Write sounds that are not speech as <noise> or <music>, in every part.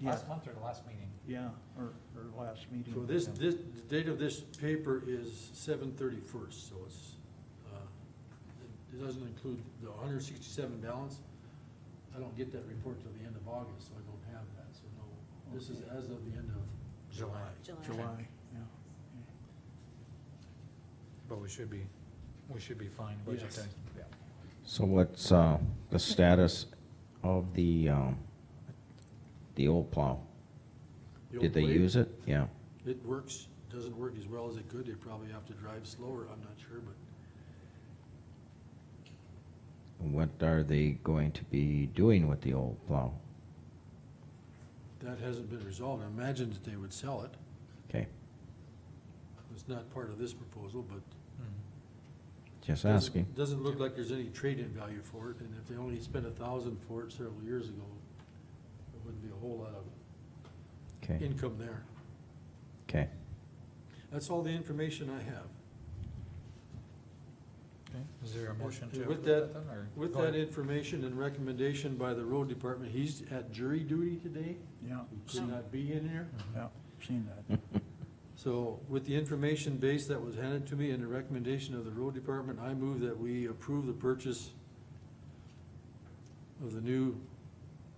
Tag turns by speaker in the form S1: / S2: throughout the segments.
S1: yeah,
S2: Last month or the last meeting?
S1: yeah, or, or last meeting.
S3: So this, this, the date of this paper is seven thirty-first, so it's, uh, it- it doesn't include the hundred sixty-seven balance. I don't get that report till the end of August, so I don't have that, so no, this is
S1: Okay.
S3: as of the end of July.
S1: July, yeah.
S2: But we should be, we should be fine budget
S3: Yes.
S2: time.
S4: So what's, uh, the status of the, um, the old plow?
S3: The
S4: Did
S3: old
S4: they
S3: blade,
S4: use it? Yeah.
S3: It works, doesn't work as well as it could, they probably have to drive slower, I'm not sure, but
S4: What are they going to be doing with the old plow?
S3: that hasn't been resolved. I imagine that they would sell it,
S4: Okay,
S3: it's not part of this proposal, but
S2: Mhm.
S4: just
S3: Doesn't-
S4: asking.
S3: Doesn't look like there's any trade-in value for it, and if they only spent a thousand for it several years ago, there wouldn't be a whole lot of
S4: Okay,
S3: income there.
S4: okay.
S3: That's all the information I have.
S2: Okay, is there a motion to?
S3: And with
S2: approve
S3: that-
S2: then, or-
S3: With
S2: Go
S3: that
S2: ahead.
S3: information and recommendation by the road department, he's at jury duty today,
S1: Yeah,
S3: he could not be in here.
S2: Mhm.
S1: yeah, seen that.
S3: So with the information base that was handed to me and the recommendation of the road department, I move that we approve the purchase of the new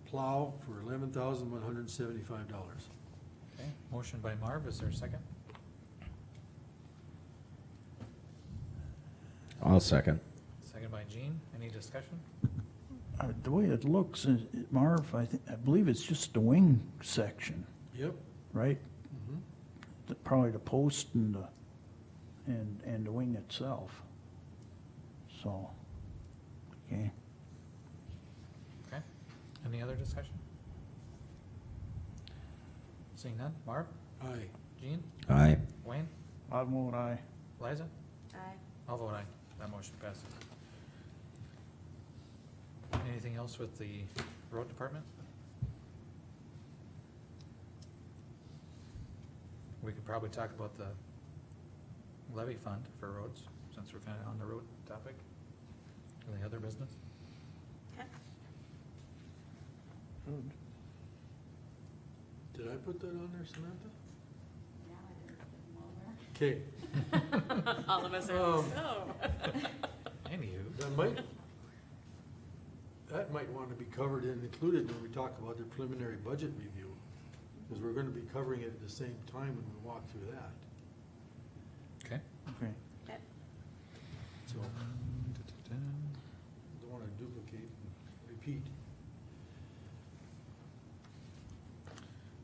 S3: plow for eleven thousand one hundred and seventy-five dollars.
S2: Okay, Motion by Marv, is there a second?
S4: I'll second.
S2: Second by Jean, any discussion?
S1: Uh, The way it looks, uh, Marv, I think, I believe it's just the wing section,
S3: Yep.
S1: right?
S3: Mhm.
S1: The- Probably the post and the, and, and the wing itself. So, okay,
S2: Okay, any other discussion? Seeing none, Marv,
S3: Aye.
S2: Jean,
S4: Aye.
S2: Wayne,
S1: I vote aye.
S2: Liza?
S5: Aye.
S2: I'll vote aye, that motion passes. Anything else with the road department? We could probably talk about the levy fund for roads, since we're kind of on the road topic. Any other business?
S5: Okay.
S3: Did I put that on there, Samantha? Okay,
S5: <laughs> All of us are,
S3: Um.
S5: so.
S2: Anywho,
S3: that might, that might want to be covered and included when we talk about the preliminary budget review. Because we're gonna be covering it at the same time when we walk through that,
S2: okay.
S1: Okay,
S5: Okay.
S3: so don't want to duplicate and repeat.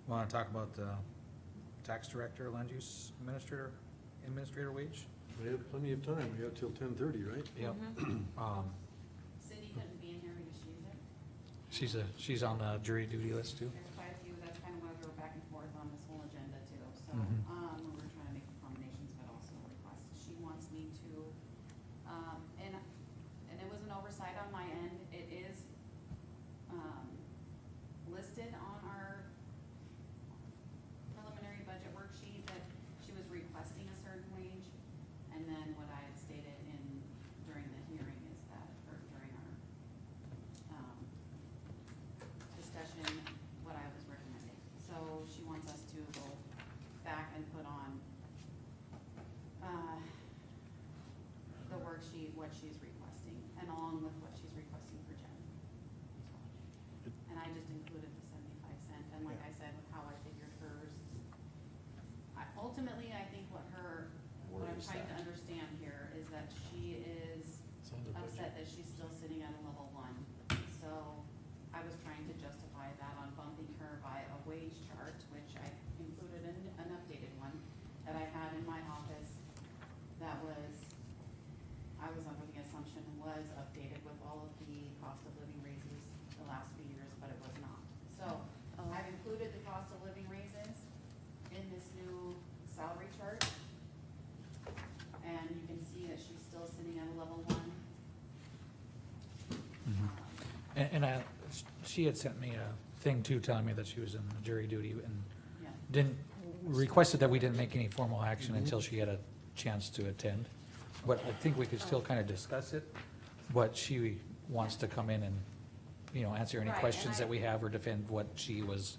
S2: Want to talk about the tax director, land use administrator, administrator wage?
S3: We have plenty of time, we have till ten thirty, right?
S2: Yep. Um,
S6: Cindy couldn't be in here because she was there.
S2: she's a, she's on the jury duty list too.
S6: There's quite a few, that's kind of why we were back and forth on this whole agenda too. So,
S2: Mhm.
S6: um, we were trying to make accommodations, but also request, she wants me to, um, and, and it was an oversight on my end. It is, um, listed on our preliminary budget worksheet that she was requesting a certain wage. And then what I had stated in, during the hearing is that, or during our, um, discussion, what I was recommending. So she wants us to go back and put on, uh, the worksheet, what she's requesting, and along with what she's requesting for Jen. And I just included the seventy-five cent, and like I said, with how I figured hers, I, ultimately, I think what her, what
S3: Where
S6: I'm
S3: is
S6: trying to
S3: that?
S6: understand here is that she is
S3: It's on the budget.
S6: upset that she's still sitting at a level one. So I was trying to justify that on bumping her by a wage chart, which I included in an updated one that I had in my office that was, I was under the assumption was updated with all of the cost of living raises the last few years, but it was not. So I've included the cost of living raises in this new salary chart. And you can see that she's still sitting at a level one. Mm-hmm.
S2: Mm-hmm.
S6: Um,
S2: And, and I, she had sent me a thing too, telling me that she was in jury duty and
S6: Yeah,
S2: didn't, requested that we didn't make any formal action until she had a chance to attend. But I think we could still kind of discuss it, but she wants to come in and, you know, answer any
S6: Right, and
S2: questions
S6: I-
S2: that we have or defend what she was